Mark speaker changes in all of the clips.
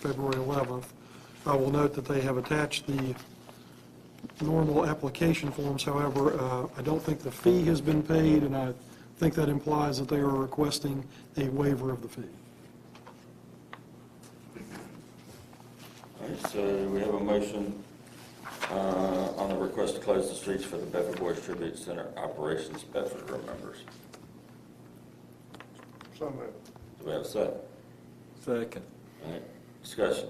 Speaker 1: February 11th. I will note that they have attached the normal application forms, however, uh, I don't think the fee has been paid, and I think that implies that they are requesting a waiver of the fee.
Speaker 2: All right, so we have a motion uh, on the request to close the streets for the Bedford Boys Tribute Center Operations Bedford Remembers.
Speaker 3: So moved.
Speaker 2: Do we have a second?
Speaker 4: Second.
Speaker 2: All right, discussion.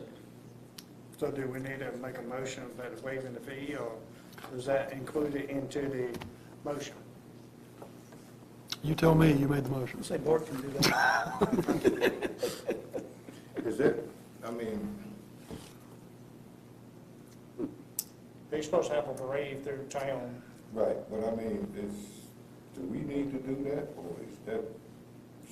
Speaker 3: So do we need to make a motion about waiving the fee, or is that included into the motion?
Speaker 1: You tell me, you made the motion.
Speaker 3: Say board can do that.
Speaker 5: Is it, I mean,
Speaker 3: They're supposed to have a parade through town.
Speaker 5: right, but I mean, is, do we need to do that, or is that?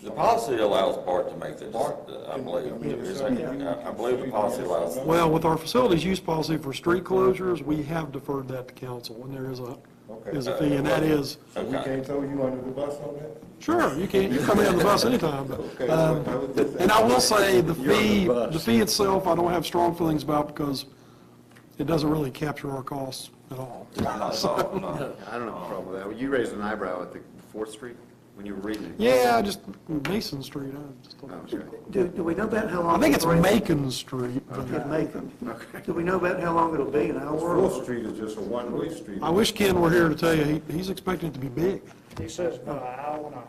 Speaker 2: The policy allows Bart to make this,
Speaker 5: Bart,
Speaker 2: uh, I
Speaker 5: can-
Speaker 2: believe.
Speaker 5: I mean,
Speaker 2: Is
Speaker 5: it's
Speaker 2: that-
Speaker 5: something
Speaker 2: I I believe the policy allows,
Speaker 1: Well, with our facilities use policy for street closures, we have deferred that to council, and there is a,
Speaker 5: Okay.
Speaker 1: is a fee, and that is,
Speaker 5: So we
Speaker 2: Okay.
Speaker 5: can't throw you under the bus on that?
Speaker 1: sure, you can, you come in on the bus anytime,
Speaker 5: Okay,
Speaker 1: but, um,
Speaker 5: well, I was just
Speaker 1: and I will
Speaker 5: asking.
Speaker 1: say, the fee,
Speaker 4: You're on the bus.
Speaker 1: the fee itself, I don't have strong feelings about, because it doesn't really capture our costs at all.
Speaker 2: not at all, uh, no.
Speaker 6: I don't have a problem with that. You raised an eyebrow at the Fourth Street when you were reading it.
Speaker 1: Yeah, I just Mason Street, I just
Speaker 6: Oh,
Speaker 1: don't.
Speaker 6: okay.
Speaker 7: Do, do we know about how long?
Speaker 1: I think it's
Speaker 7: the parade-
Speaker 1: Macon Street, but
Speaker 7: Yeah, Macon. Do we know about how long it'll be, an hour?
Speaker 5: Fourth
Speaker 7: or-
Speaker 5: Street is just a one-way street.
Speaker 1: I wish Ken were here to tell you, he- he's expecting it to be big.
Speaker 3: He says about an hour and a,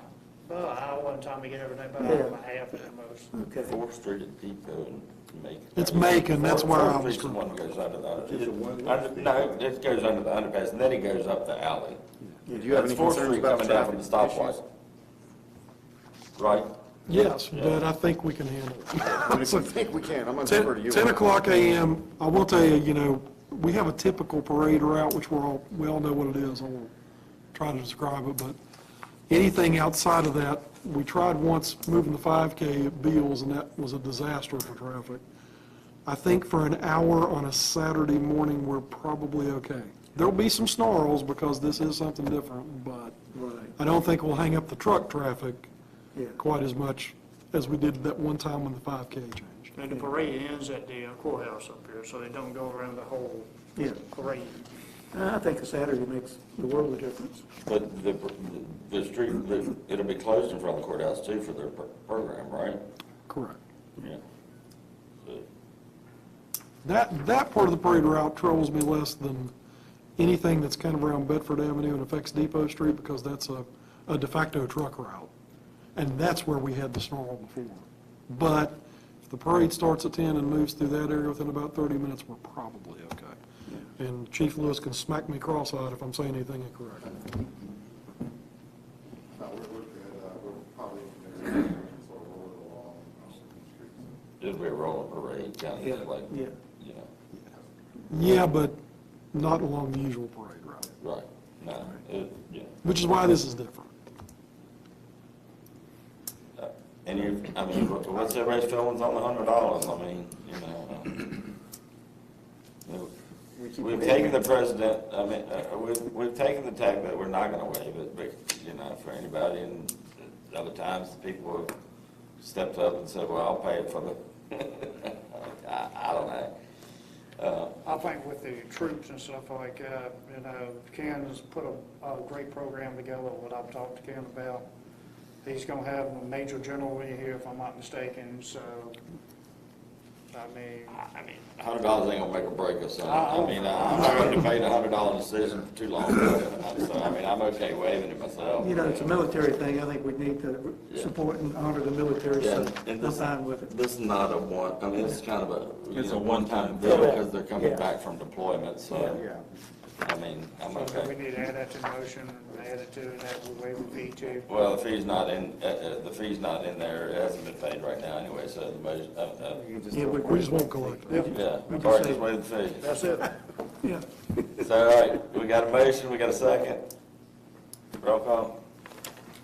Speaker 3: about an hour and time to get everything, about an hour and a half at the most.
Speaker 7: Okay.
Speaker 2: Fourth Street at Depot and Macon.
Speaker 1: It's Macon, that's where I
Speaker 2: Fourth
Speaker 1: was
Speaker 2: Street's the one that goes under the,
Speaker 5: It's a one-way
Speaker 2: under- no, it goes under the underpass, and then it goes up the alley.
Speaker 6: Do you have
Speaker 2: That's
Speaker 6: any
Speaker 2: Fourth
Speaker 6: concerns
Speaker 2: Street
Speaker 6: about
Speaker 2: coming down from
Speaker 6: traffic
Speaker 2: the
Speaker 6: issues?
Speaker 2: stoplight. Right?
Speaker 1: Yes, but I think we can handle it.
Speaker 6: If you think we can, I'm going to defer to
Speaker 1: Ten
Speaker 6: you.
Speaker 1: 10 o'clock AM, I will tell you, you know, we have a typical parade route, which we're all, we all know what it is, I won't try to describe it, but anything outside of that, we tried once moving the 5K at Beals, and that was a disaster for traffic. I think for an hour on a Saturday morning, we're probably okay. There'll be some snarls, because this is something different, but
Speaker 7: Right.
Speaker 1: I don't think we'll hang up the truck traffic
Speaker 7: Yeah.
Speaker 1: quite as much as we did that one time when the 5K changed.
Speaker 3: And the parade ends at the uh, courthouse up here, so they don't go around the whole
Speaker 7: Yeah.
Speaker 3: parade.
Speaker 7: I think a Saturday makes the world of difference.
Speaker 2: But the, the street, the- it'll be closed in front of the courthouse too for their pro- program, right?
Speaker 1: Correct.
Speaker 2: Yeah. So,
Speaker 1: That, that part of the parade route troubles me less than anything that's kind of around Bedford Avenue and affects Depot Street, because that's a, a de facto truck route. And that's where we had the snarl before. But if the parade starts at 10 and moves through that area within about 30 minutes, we're probably okay. And Chief Lewis can smack me cross-eyed if I'm saying anything incorrect.
Speaker 5: No, we're, we're good, uh, we're probably, we're along, uh, streets.
Speaker 2: It'll be a rolling parade, kind
Speaker 7: Yeah,
Speaker 2: of like,
Speaker 7: yeah.
Speaker 2: you know,
Speaker 1: Yeah, but not along the usual parade route,
Speaker 2: right, no, it, yeah.
Speaker 1: which is why this is different.
Speaker 2: And you, I mean, what- what's everybody's feelings on the hundred dollars, I mean, you know? uh,
Speaker 6: We keep
Speaker 2: We've
Speaker 6: debating.
Speaker 2: taken the president, I mean, uh, we've, we've taken the tack that we're not gonna waive it, but, you know, for anybody, and other times, people have stepped up and said, well, I'll pay it for the, I, I don't know. Uh,
Speaker 3: I think with the troops and stuff like that, you know, Ken has put a, a great program together, what I've talked to Ken about. He's gonna have a major general in here, if I'm not mistaken, so, I mean,
Speaker 2: I mean, hundred dollars ain't gonna make a break us, I
Speaker 3: I-
Speaker 2: I mean, I- I'm not gonna debate a hundred dollar decision for too long, so, I mean, I'm okay waiving it myself.
Speaker 7: You know, it's a military thing, I think we need to support and honor the military,
Speaker 2: Yeah,
Speaker 7: so
Speaker 2: and
Speaker 7: I'm
Speaker 2: this-
Speaker 7: fine with it.
Speaker 2: This is not a one, I mean, it's kind of a, you know, one-time deal, because they're coming
Speaker 7: Yeah.
Speaker 2: back from deployment, so,
Speaker 6: Yeah.
Speaker 2: I mean, I'm
Speaker 3: so we
Speaker 2: okay.
Speaker 3: need to add that to the motion, and add it to, and that will waive the fee too.
Speaker 2: Well, the fee's not in, uh, uh, the fee's not in there, it hasn't been paid right now anyway, so the, budget- uh, uh,
Speaker 6: You can just-
Speaker 7: Yeah, we,
Speaker 1: We just won't collect it.
Speaker 2: yeah, Bart just waived the fee.
Speaker 3: That's it.
Speaker 7: yeah.
Speaker 2: So, all right, we got a motion, we got a second. Roll call.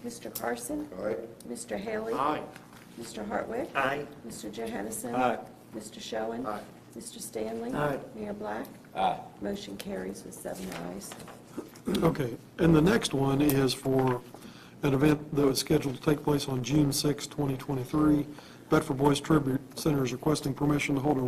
Speaker 8: Mr. Carson?
Speaker 5: Aye.
Speaker 8: Mr. Haley?
Speaker 3: Aye.
Speaker 8: Mr. Hartwick?
Speaker 7: Aye.
Speaker 8: Mr. Johansson?
Speaker 4: Aye.
Speaker 8: Mr. Showen?
Speaker 6: Aye.
Speaker 8: Mr. Stanley?
Speaker 7: Aye.
Speaker 8: Mayor Black?
Speaker 2: Aye.
Speaker 8: Motion carries with seven ayes.
Speaker 1: Okay, and the next one is for an event that was scheduled to take place on June 6, 2023. Bedford Boys Tribute Center is requesting permission to hold a